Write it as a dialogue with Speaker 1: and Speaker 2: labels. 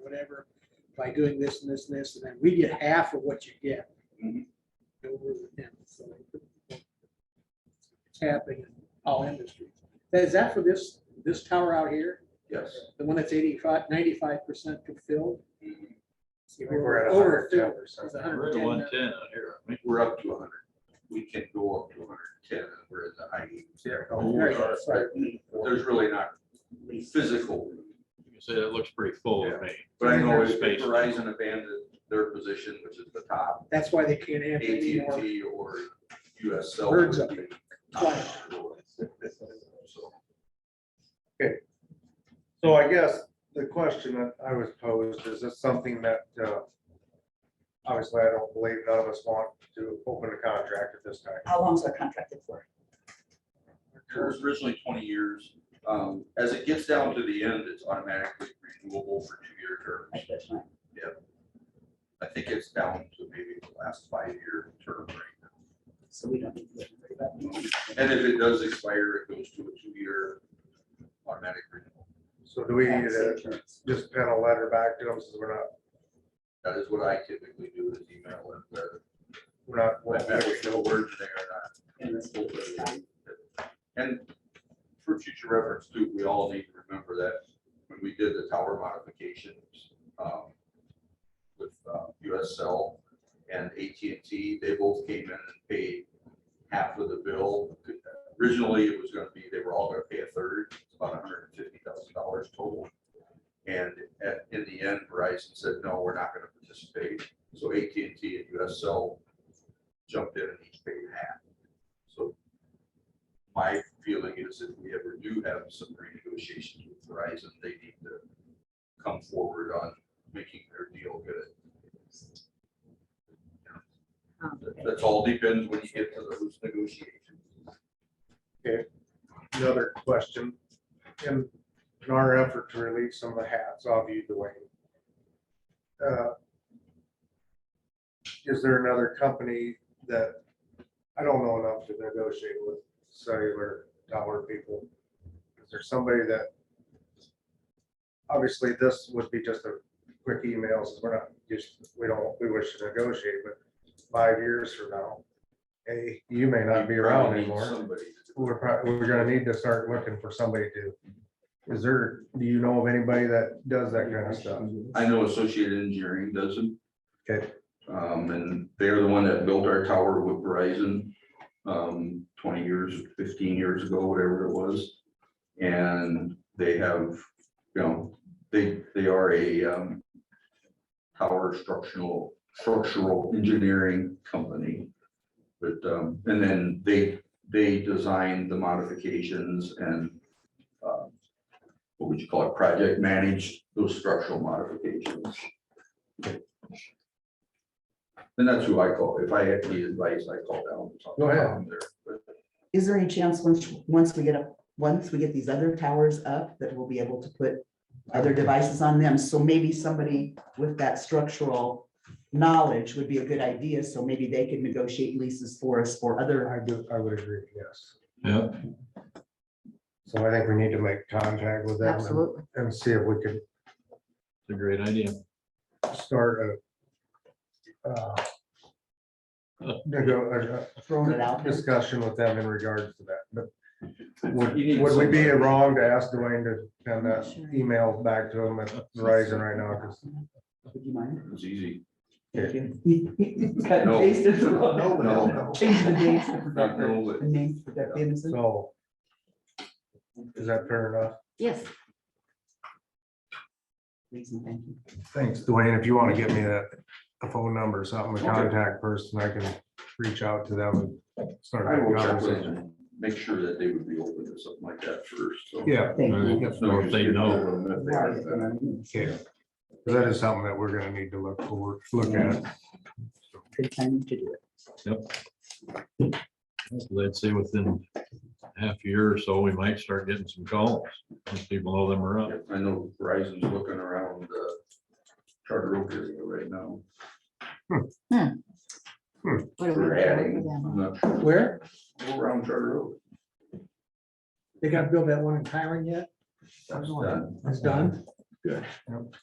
Speaker 1: whatever, by doing this and this and this, and then we get half of what you get.
Speaker 2: Mhm.
Speaker 3: Mm-hmm.
Speaker 1: Over with them, so It's happening in all industries. Is that for this, this tower out here,
Speaker 2: Yes.
Speaker 1: the one that's 85, 95 percent filled?
Speaker 2: Mhm.
Speaker 3: We're at
Speaker 1: Over
Speaker 3: 110%.
Speaker 1: filled, it's
Speaker 4: We're at
Speaker 1: 110 now.
Speaker 4: one ten out here, I mean,
Speaker 2: We're up to hundred. We can go up to hundred and ten, we're at the high eighties.
Speaker 1: Very good, sorry.
Speaker 2: There's really not physical,
Speaker 4: you can say that looks pretty full to me.
Speaker 2: but I know if
Speaker 4: Space.
Speaker 2: Verizon abandoned their position, which is the top,
Speaker 1: That's why they can't have any more.
Speaker 2: AT&T or US Cell.
Speaker 1: Birds up.
Speaker 2: would be top. So,
Speaker 3: So I guess the question that I was posed, is this something that, uh, obviously I don't believe none of us want to open a contract at this time.
Speaker 5: How long's our contracted for?
Speaker 2: It was originally twenty years. Um, As it gets down to the end, it's automatically renewable for two-year terms.
Speaker 5: Like this one?
Speaker 2: I think it's down to maybe the last five-year term right now.
Speaker 5: So we don't need to worry about it.
Speaker 2: And if it does expire, it goes to a two-year automatic renewal.
Speaker 3: So do we uh, need
Speaker 5: Tax
Speaker 3: to
Speaker 5: insurance.
Speaker 3: just pen a letter back to them since we're not,
Speaker 2: That is what I typically do is email it, whether,
Speaker 3: we're not.
Speaker 2: no matter if no word today
Speaker 5: And it's-
Speaker 2: or not. And for future reference too, we all need to remember that when we did the tower modifications, um, with, uh, US Cell and AT&T, they both came in and paid half of the bill. Originally, it was gonna be, they were all gonna pay a third, it's about hundred and fifty thousand dollars total. And at, in the end, Verizon said, no, we're not gonna participate. So AT&T and US Cell jumped in and each paid half. So my feeling is if we ever do have some renegotiations with Verizon, they need to come forward on making their deal good.
Speaker 5: um,
Speaker 2: That's all depends when you get to those negotiations.
Speaker 3: Another question, in, in our effort to relieve some of the hats off you, Dwayne. uh, Is there another company that, I don't know enough to negotiate with cellular tower people? Is there somebody that? Obviously, this would be just a quick email, since we're not, just, we don't, we wish to negotiate, but five years from now. Hey, you may not be around
Speaker 2: Probably need
Speaker 3: anymore
Speaker 2: Somebody. to do
Speaker 3: we're probably, we're gonna need to start looking for somebody to, is there, do you know of anybody that does that kind of stuff?
Speaker 2: it. I know Associated Engineering doesn't.
Speaker 3: Okay.
Speaker 2: Um, and they're the one that built our tower with Verizon, um, twenty years, fifteen years ago, whatever it was. And they have, you know, they, they are a, um, tower structural, structural engineering company. But, um, and then they, they designed the modifications and, um, what would you call it, project manage those structural modifications. And that's who I call, if I had the advice, I call down. and talk to
Speaker 3: Go ahead.
Speaker 2: Tom there, but
Speaker 5: Is there any chance once, once we get up, once we get these other towers up, that we'll be able to put other devices on them? So maybe somebody with that structural knowledge would be a good idea, so maybe they could negotiate leases for us for other.
Speaker 3: I do, I would agree, yes.
Speaker 4: Yeah.
Speaker 3: So I think we need to make contact with them and- and see if we can
Speaker 4: It's a great idea.
Speaker 3: start a uh, nego- a-
Speaker 5: Throwing it
Speaker 3: a
Speaker 5: out. there.
Speaker 3: discussion with them in regards to that, but would,
Speaker 2: You need
Speaker 3: would we be
Speaker 2: somebody.
Speaker 3: wrong to ask Dwayne to send that email back to him at Verizon right now? 'Cause
Speaker 5: Would you mind?
Speaker 2: It's easy.
Speaker 5: Thank you. Cut and
Speaker 2: No.
Speaker 5: paste it.
Speaker 2: No, no, no.
Speaker 5: Change the names to protect their-
Speaker 2: No,
Speaker 5: the names to protect the innocent.
Speaker 3: So. Is that fair enough?
Speaker 6: Yes,
Speaker 5: Please and thank you.
Speaker 3: Thanks, Dwayne. If you want to give me that, a phone number, or something, a contact person, I can reach out to them and start
Speaker 2: I will
Speaker 3: that
Speaker 2: check with
Speaker 3: conversation.
Speaker 2: them, make sure that they would be open to something like that first, so.
Speaker 3: Yeah,
Speaker 5: Thank you.
Speaker 4: Alright. Or if they know.
Speaker 2: If they
Speaker 5: Sorry, it's
Speaker 2: are, uh,
Speaker 5: been
Speaker 3: yeah. 'Cause That is something that we're gonna need to look for, look at.
Speaker 5: a Good time to do it.
Speaker 4: I'd say within half a year or so, we might start getting some calls, once people know them are up.
Speaker 2: I know Verizon's looking around, uh, Charter Oak area right now,
Speaker 6: what are we
Speaker 2: we're
Speaker 6: doing
Speaker 2: adding,
Speaker 6: with them?
Speaker 2: I'm not sure,
Speaker 1: Where?
Speaker 2: Go around Charter Oak.
Speaker 1: They gotta build that one in Tyron yet?
Speaker 2: That's done.
Speaker 1: It's done?
Speaker 2: Yeah.
Speaker 3: Yep.